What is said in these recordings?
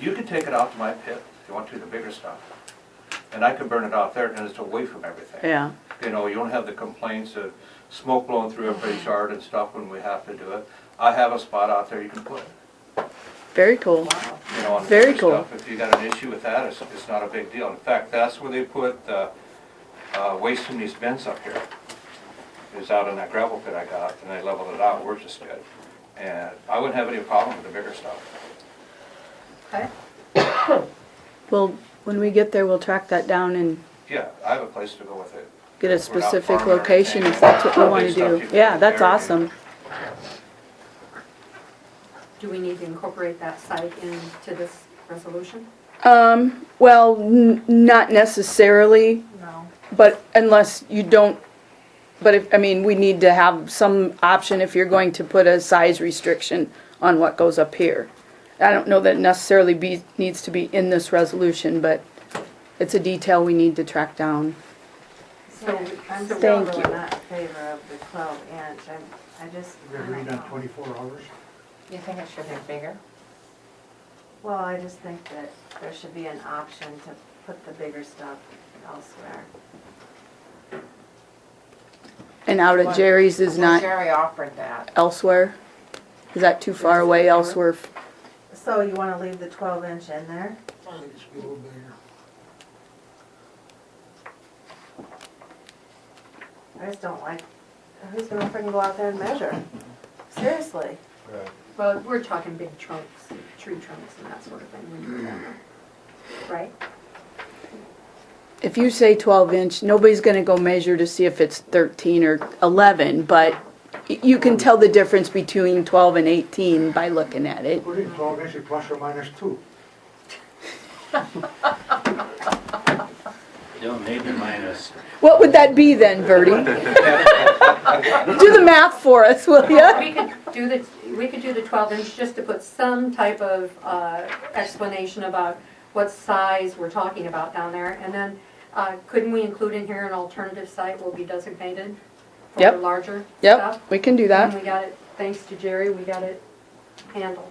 You can take it out to my pit, if you want to, the bigger stuff. And I can burn it out there, and it's away from everything. yeah, You know, you don't have the complaints of smoke blowing through everybody's yard and stuff when we have to do it. I have a spot out there you can put, it, very cool. you know, on the Very bigger cool. stuff. If you got an issue with that, it's, it's not a big deal. In fact, that's where they put, uh, uh, waste from these bins up here. Is out in that gravel pit I got, and I leveled it out, we're just good. And I wouldn't have any problem with the bigger stuff. Okay. Well, when we get there, we'll track that down and Yeah, I have a place to go with it. get a We're not specific farming or location if anything. that's what we wanna Big stuff you do. can Yeah, that's bury. awesome. Do we need to incorporate that site into this resolution? Um, well, n- not necessarily, No. but unless you don't, but if, I mean, we need to have some option if you're going to put a size restriction on what goes up here. I don't know that it necessarily be, needs to be in this resolution, but it's a detail we need to track down. So I'm Thank still you. really not in favor of the twelve inch, I, I just. We're I agreed don't on know. twenty-four hours? You think it should be bigger? Well, I just think that there should be an option to put the bigger stuff elsewhere. And out at Jerry's is Well, not Jerry offered that. elsewhere? Is that too far away elsewhere? So you wanna leave the twelve inch in there? I think it should be a little bigger. I just don't like, who's gonna freaking go out there and measure? Seriously, Well, we're talking big trunks, tree trunks and that sort of thing, when you do that, right? If you say twelve inch, nobody's gonna go measure to see if it's thirteen or eleven, but y- you can tell the difference between twelve and eighteen by looking at it. Put in twelve inches plus or minus two. No, maybe minus What would that be then, Verdi? Do the math for us, will ya? We could do the, we could do the twelve inch just to put some type of uh, explanation about what size we're talking about down there. And then, uh, couldn't we include in here an alternative site will be designated for Yep. larger stuff? Yep, we can do And that. we got it, thanks to Jerry, we got it handled.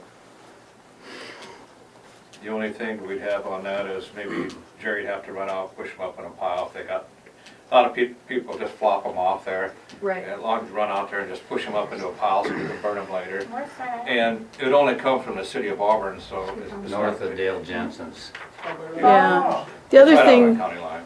The only thing we'd have on that is maybe Jerry'd have to run out, push them up in a pile if they got, a lot of peop people just flop them off there. As long as you run out there and just push them up into a pile so we can burn them later. Where's that? And it would only come from the city of Auburn, so it's. it's not- north of Dale Jensen's. Yeah. The other Right out on the thing, county line.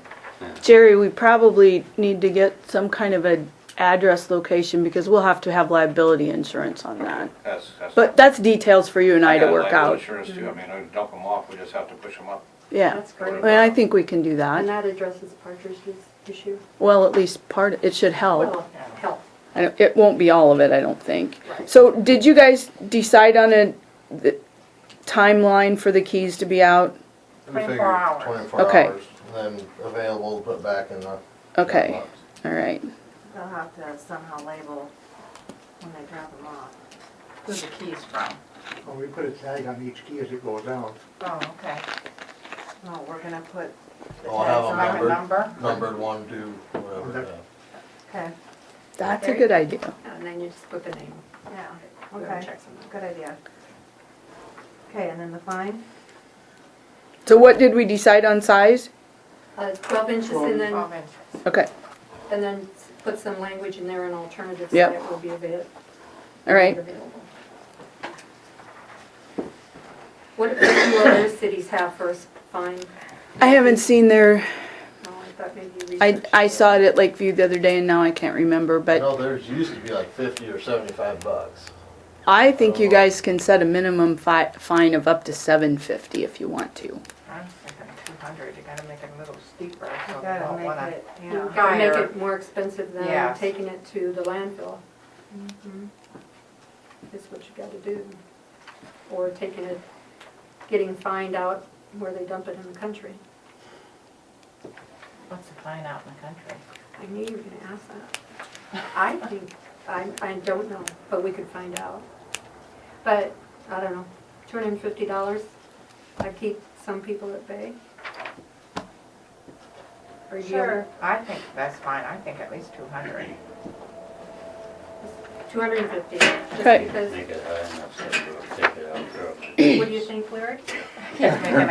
Jerry, we probably need to get some kind of a address location because we'll have to have liability insurance on that. That's, that's. But that's details for you and I to got work liability out. Insurance too, I mean, I dump them off, we just have to push them up. Yeah, That's great. I mean, I think we can do And that. that addresses Partridge's issue? Well, at least part, it should help. Well, help. I don't, it won't be all of it, I don't think. Right. So did you guys decide on a the timeline for the keys to be out? We 24 figure hours. Twenty-four Okay. hours, and then available to put back in the. Okay, box. all right. they'll have to somehow label when they drop them off. Who's the keys from? Well, we put a tag on each key as it goes out. Oh, okay. No, we're gonna put the I'll have tags them Like on a it. numbered. number? Numbered one, two, whatever, Okay. yeah. Okay, That's a good idea. And then you just put the name. yeah, Whoever okay, checks them out. good idea. Okay, and then the fine? So what did we decide on size? Uh, Twelve inches and then, Twelve inches. Okay, and then s- put some language in there, an alternative Yep. site will be avail- all right. available. What what do other cities have for us, fine? I haven't seen their, No, I thought maybe you I, researched I it. saw it at Lakeview the other day and now I can't remember, I but know theirs used to be like fifty or seventy-five bucks. I think you guys can set a minimum fi- fine of up to seven fifty if you want to. I'm thinking two hundred, you gotta make it a little steeper, so You they gotta don't wanna. make it, You yeah. gotta make Higher. it more expensive than Yes. taking it to the landfill. Mm-hmm. Is what you gotta do. Or taking it, getting fined out where they dump it in the country. What's the fine out in the country? I knew you were gonna ask that. I think, I, I don't know, but we could find out. But, I don't know, two hundred and fifty dollars, I keep some people at bay. Or you- Sure, I think that's fine, I think at least two hundred. 250, Okay. just because, Make it high enough so you'll take it out. what do you think, Larry? kids making